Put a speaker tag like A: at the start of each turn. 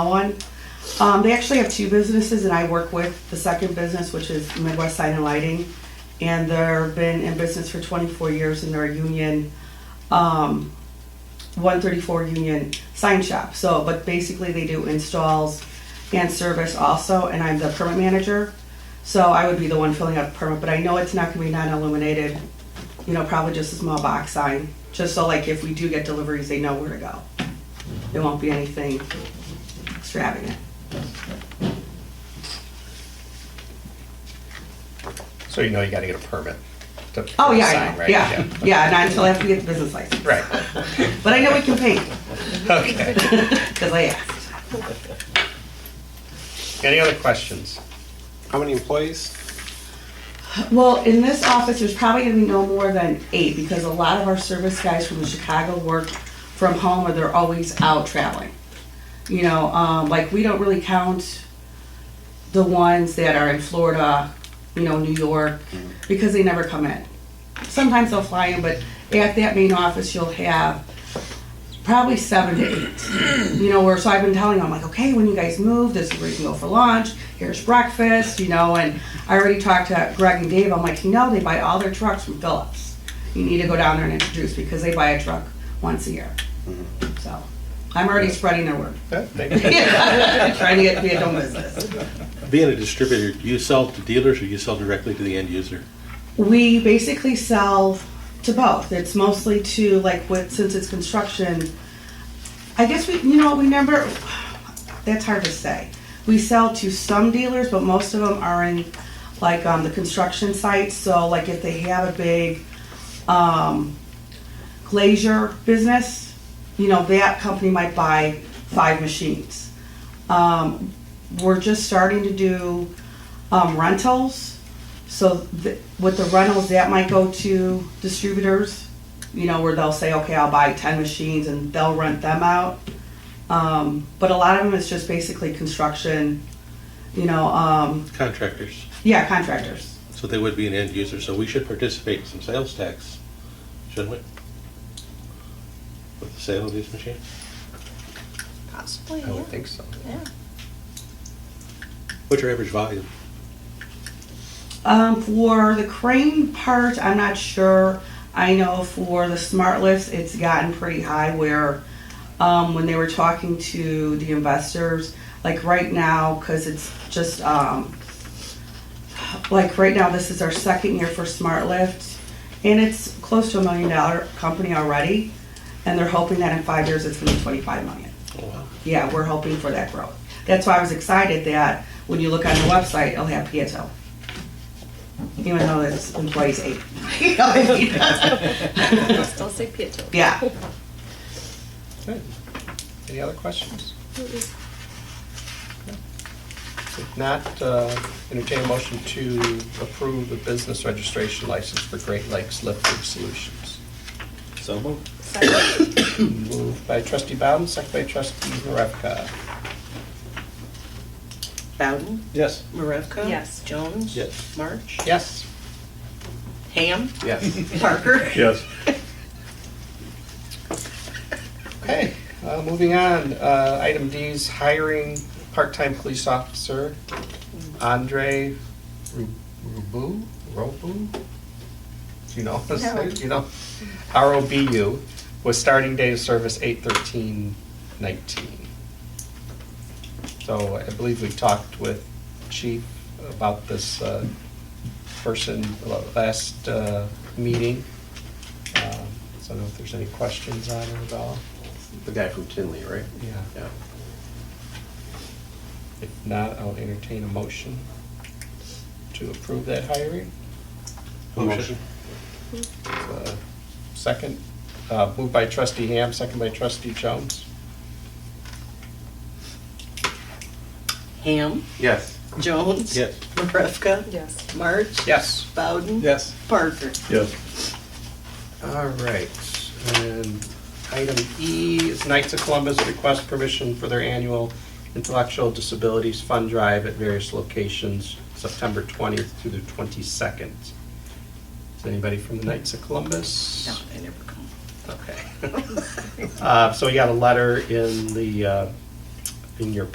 A: One, um, they actually have two businesses that I work with. The second business, which is Midwest Sign and Lighting, and they're been in business for twenty-four years and they're a union, um, one thirty-four union sign shop. So, but basically they do installs and service also, and I'm the permit manager. So I would be the one filling out the permit, but I know it's not gonna be non-illuminated, you know, probably just a small box sign, just so like if we do get deliveries, they know where to go. It won't be anything extravagant.
B: So you know you gotta get a permit. to put
A: Oh,
B: a
A: yeah, I
B: sign,
A: know.
B: right?
A: yeah, yeah, and I still have to get the business license.
B: Right,
A: But I know we can paint,
B: okay.
A: because I asked.
B: Any other questions?
C: How many employees?
A: Well, in this office, there's probably gonna be no more than eight, because a lot of our service guys from Chicago work from home, or they're always out traveling. You know, um, like, we don't really count the ones that are in Florida, you know, New York,
B: Mm-hmm.
A: because they never come in. Sometimes they'll fly in, but at that main office, you'll have probably seven to eight. You know, where so I've been telling them like, okay, when you guys move, this is where you can go for lunch. Here's breakfast, you know. And I already talked to Greg and Dave. I'm like, you know, they buy all their trucks from Phillips. You need to go down there and introduce because they buy a truck once a year. So I'm already spreading their word,
B: That- they-
A: trying to get to be a dumb business.
D: Being a distributor, do you sell to dealers or you sell directly to the end user?
A: We basically sell to both. It's mostly to like with since it's construction. I guess we you know what, we never that's hard to say. We sell to some dealers, but most of them are in like um, the construction sites. So like if they have a big um, glazier business, you know that company might buy five machines. Um, we're just starting to do um, rentals. So th- with the rentals, that might go to distributors, you know, where they'll say, okay, I'll buy ten machines and they'll rent them out. Um, but a lot of them is just basically construction, you know, um,
D: Contractors.
A: yeah, contractors.
D: So they would be an end user, so we should participate in some sales tax, shouldn't we? With the sale of these machines?
E: Possibly,
B: I
E: yeah.
B: would think so.
E: Yeah.
D: What's your average volume?
A: Um, for the crane part, I'm not sure. I know for the smart lifts, it's gotten pretty high where, um, when they were talking to the investors, like right now, cause it's just, um, like right now, this is our second year for smart lift and it's close to a million dollar company already. And they're hoping that in five years, it's gonna be twenty-five million
D: Oh, wow.
A: yeah, we're hoping for that growth. That's why I was excited that when you look on the website, it'll have Pieto. Even though it's employees eight. You know what I mean?
E: I'll still say Pietro.
A: Yeah.
B: Good. Any other questions? If not, uh, entertain a motion to approve the business registration license for Great Lakes Lifting Solutions.
C: So moved.
E: Second.
A: Hmm.
B: Moved by trustee Bowden, second by trustee Maravka.
F: Bowden,
D: Yes.
F: Marevka?
E: Yes.
F: Jones?
D: Yes.
F: March?
B: Yes?
F: Ham?
B: Yes.
F: Parker?
D: Yes.
B: Okay, uh, moving on, uh, item D is hiring part-time police officer Andre Ru- Rubu, Robu? Do you know, what I'm saying?
E: No.
B: you know, R O B U, with starting date of service eight thirteen nineteen. So I believe we talked with chief about this, uh, person last, uh, meeting. Um, So I don't know if there's any questions on it at all.
C: The guy from Tinley, right?
B: Yeah.
C: Yeah.
B: If not, I'll entertain a motion to approve that hiring.
D: Motion.
B: Uh, Second, uh, moved by trustee Ham, second by trustee Jones.
F: Ham?
C: Yes.
F: Jones?
D: Yes.
F: Marevka?
E: Yes.
F: March?
B: Yes.
F: Bowden?
C: Yes.
F: Parker?
B: All right, and item E is Knights of Columbus request permission for their annual Intellectual Disabilities Fund Drive at various locations, September 20th through the 22nd. Is anybody from the Knights of Columbus?
F: No, I never come.
B: Okay. Uh, So you got a letter in the, uh, in your